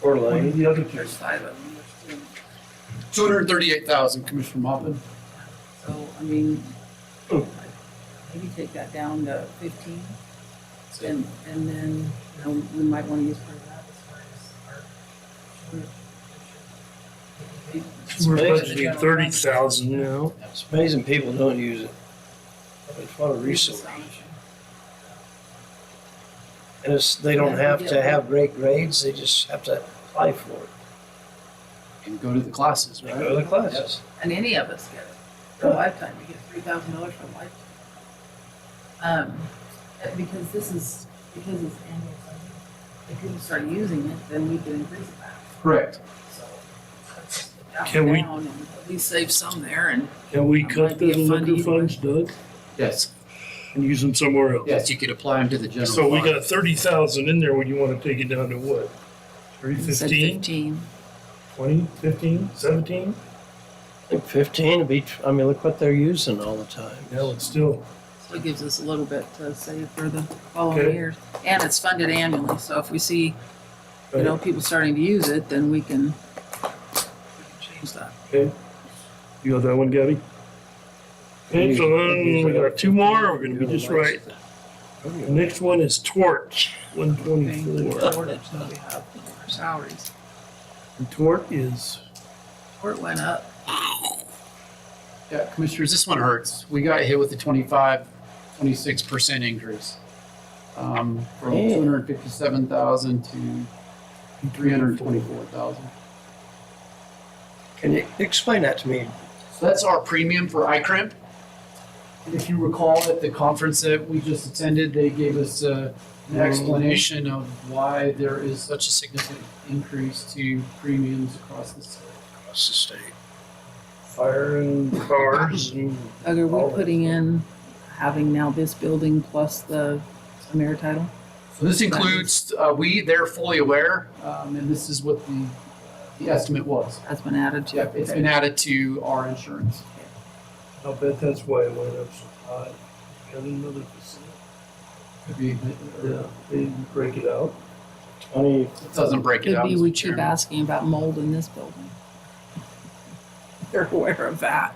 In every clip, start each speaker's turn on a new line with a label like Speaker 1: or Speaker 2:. Speaker 1: Coeur
Speaker 2: What are
Speaker 1: d'Alene.
Speaker 2: the other things?
Speaker 3: Two hundred and thirty-eight thousand, Commissioner Mopin.
Speaker 4: So, I mean,
Speaker 2: Oh.
Speaker 4: maybe take that down to fifteen, and, and then, you know, we might wanna use part of that as far as
Speaker 2: We're
Speaker 4: our.
Speaker 2: budgeting thirty thousand now.
Speaker 1: It's amazing people don't use it. It's not a resource. And it's, they don't have to have great grades, they just have to apply for it.
Speaker 3: And go to the classes,
Speaker 1: They
Speaker 3: right?
Speaker 1: go to the classes.
Speaker 4: And any of us get it, for a lifetime, we get three thousand dollars for a lifetime. Um, uh, because this is, because it's annual funding, if people start using it, then we can increase it back.
Speaker 3: Correct.
Speaker 4: So, let's knock it
Speaker 2: Can we-
Speaker 4: down and At least save some there and.
Speaker 2: Can we
Speaker 4: That
Speaker 2: cut
Speaker 4: might be
Speaker 2: the
Speaker 4: a fun
Speaker 2: liquor
Speaker 4: evening.
Speaker 2: funds, Doug,
Speaker 3: Yes,
Speaker 2: and use them somewhere else?
Speaker 3: yes, you could apply them to the general.
Speaker 2: So we
Speaker 3: fund.
Speaker 2: got thirty thousand in there, when you wanna take it down to what? Thirty,
Speaker 4: You said
Speaker 2: fifteen, twenty, fifteen, seventeen?
Speaker 1: Like Fifteen would be, I mean, look what they're using all the time.
Speaker 2: Hell, it's still,
Speaker 4: So it gives us a little bit to save for the
Speaker 2: Okay.
Speaker 4: following years. And it's funded annually, so if we see, you know, people starting to use it, then we can we can change that.
Speaker 2: you got that one, Gabby? Okay, so then we got two more, we're gonna be just right.
Speaker 1: Oh,
Speaker 2: The Next one is Torch, one
Speaker 4: Paying the
Speaker 2: twenty-four.
Speaker 4: shortage that we have for our salaries.
Speaker 2: And Tort is,
Speaker 4: Or it went up.
Speaker 3: Yeah, Commissioners, this one hurts. We got hit with a 25, 26% increase. Um, from
Speaker 1: Hey.
Speaker 3: 257,000 to 324,000.
Speaker 1: Can you explain that to me?
Speaker 3: So that's our premium for iCrimp. And if you recall at the conference that we just attended, they gave us uh, an explanation of why there is such a significant increase to premiums across the state.
Speaker 1: Across the state. Fire and cars and
Speaker 4: Doug, are
Speaker 2: Oh.
Speaker 1: All of
Speaker 4: we
Speaker 1: it.
Speaker 4: putting in having now this building plus the mayor title?
Speaker 3: So this includes, uh, we, they're fully aware, um, and this is what the, the estimate was.
Speaker 4: That's been added to.
Speaker 3: Yep, it's been added to our insurance.
Speaker 2: I'll bet that's why it went up so high. Got another percent.
Speaker 3: Could be- uh,
Speaker 2: Yeah,
Speaker 3: or-
Speaker 2: they didn't break it out.
Speaker 1: twenty,
Speaker 3: It doesn't break it
Speaker 4: Could
Speaker 3: out.
Speaker 4: be
Speaker 3: Mr.
Speaker 4: we keep
Speaker 3: Chairman.
Speaker 4: asking about mold in this building. They're aware of that.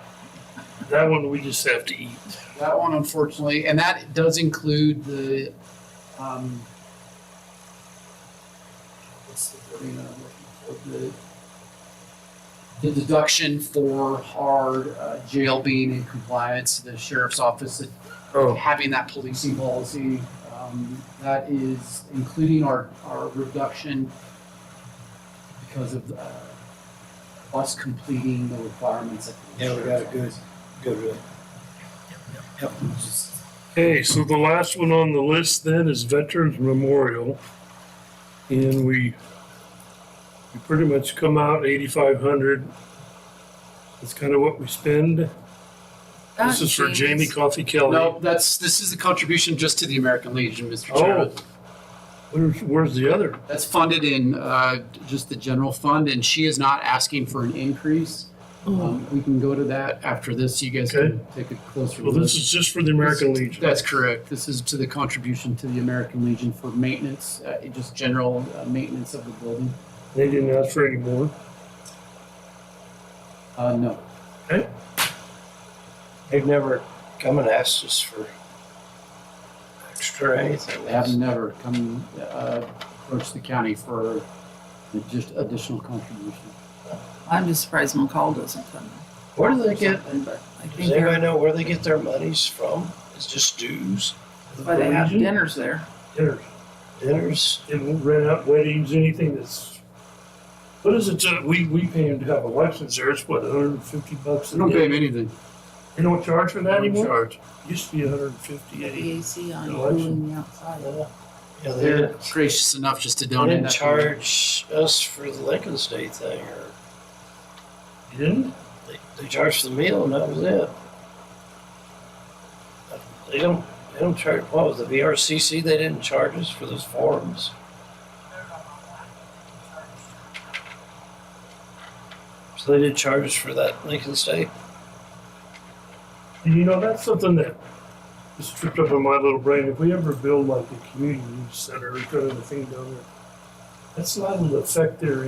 Speaker 2: That one we just have to eat.
Speaker 3: That one unfortunately, and that does include the, um, what's the wording that I'm looking for? The- The deduction for our uh, jail being in compliance, the sheriff's office
Speaker 2: Oh.
Speaker 3: having that policing policy. Um, that is including our, our reduction because of uh, us completing the requirements. of the
Speaker 1: Yeah, we got a good- good, uh,
Speaker 2: Okay, so the last one on the list then is Veterans Memorial. And we, we pretty much come out eighty-five hundred. That's kind of what we spend. This is for Jamie Coffee Kelly.
Speaker 3: No, that's, this is a contribution just to the American Legion, Mr.
Speaker 2: Oh,
Speaker 3: Chairman.
Speaker 2: where's, where's the other?
Speaker 3: That's funded in uh, just the general fund, and she is not asking for an increase. Um, We can go to that after this, you guys can take a closer
Speaker 2: Well,
Speaker 3: look.
Speaker 2: this is just for the American Legion.
Speaker 3: That's correct. This is to the contribution to the American Legion for maintenance, uh, just general uh, maintenance of the building.
Speaker 2: They didn't ask for any more.
Speaker 3: Uh, no.
Speaker 1: they've never come and asked us for extra or anything.
Speaker 3: They have never come, uh, approach the county for just additional contribution.
Speaker 4: I'm just surprised McCall doesn't come.
Speaker 1: Where do they
Speaker 4: in or
Speaker 1: get,
Speaker 4: something, but I think
Speaker 1: does anybody
Speaker 4: they're-
Speaker 1: know where they get their monies from? It's just dues,
Speaker 4: that's why they have
Speaker 2: Legion?
Speaker 4: dinners there.
Speaker 2: Dinners.
Speaker 1: dinners?
Speaker 2: They won't rent out weddings, anything that's, what is it, uh, we, we pay them to have a license there, it's what, hundred and fifty bucks? a
Speaker 3: They don't pay
Speaker 2: day?
Speaker 3: them anything.
Speaker 2: They don't charge for
Speaker 3: They
Speaker 2: that
Speaker 3: don't
Speaker 2: anymore?
Speaker 3: charge.
Speaker 2: Used to be hundred and fifty-eight.
Speaker 4: The AC on
Speaker 2: The
Speaker 4: cooling the outside.
Speaker 1: Yeah, uh, Yeah, they
Speaker 3: They're
Speaker 1: didn't,
Speaker 3: gracious enough just to
Speaker 1: they
Speaker 3: donate.
Speaker 1: didn't
Speaker 3: that.
Speaker 1: charge us for the Lincoln's Day thing, or
Speaker 2: You didn't?
Speaker 1: they, they charged for the meal and that was it. Uh, They don't, they don't charge, what was the VRCC, they didn't charge us for those forums? So they did charge us for that Lincoln's Day?
Speaker 2: And you know, that's something that just tripped up in my little brain. If we ever build like a community center, kind of a thing down there, That's not an effect their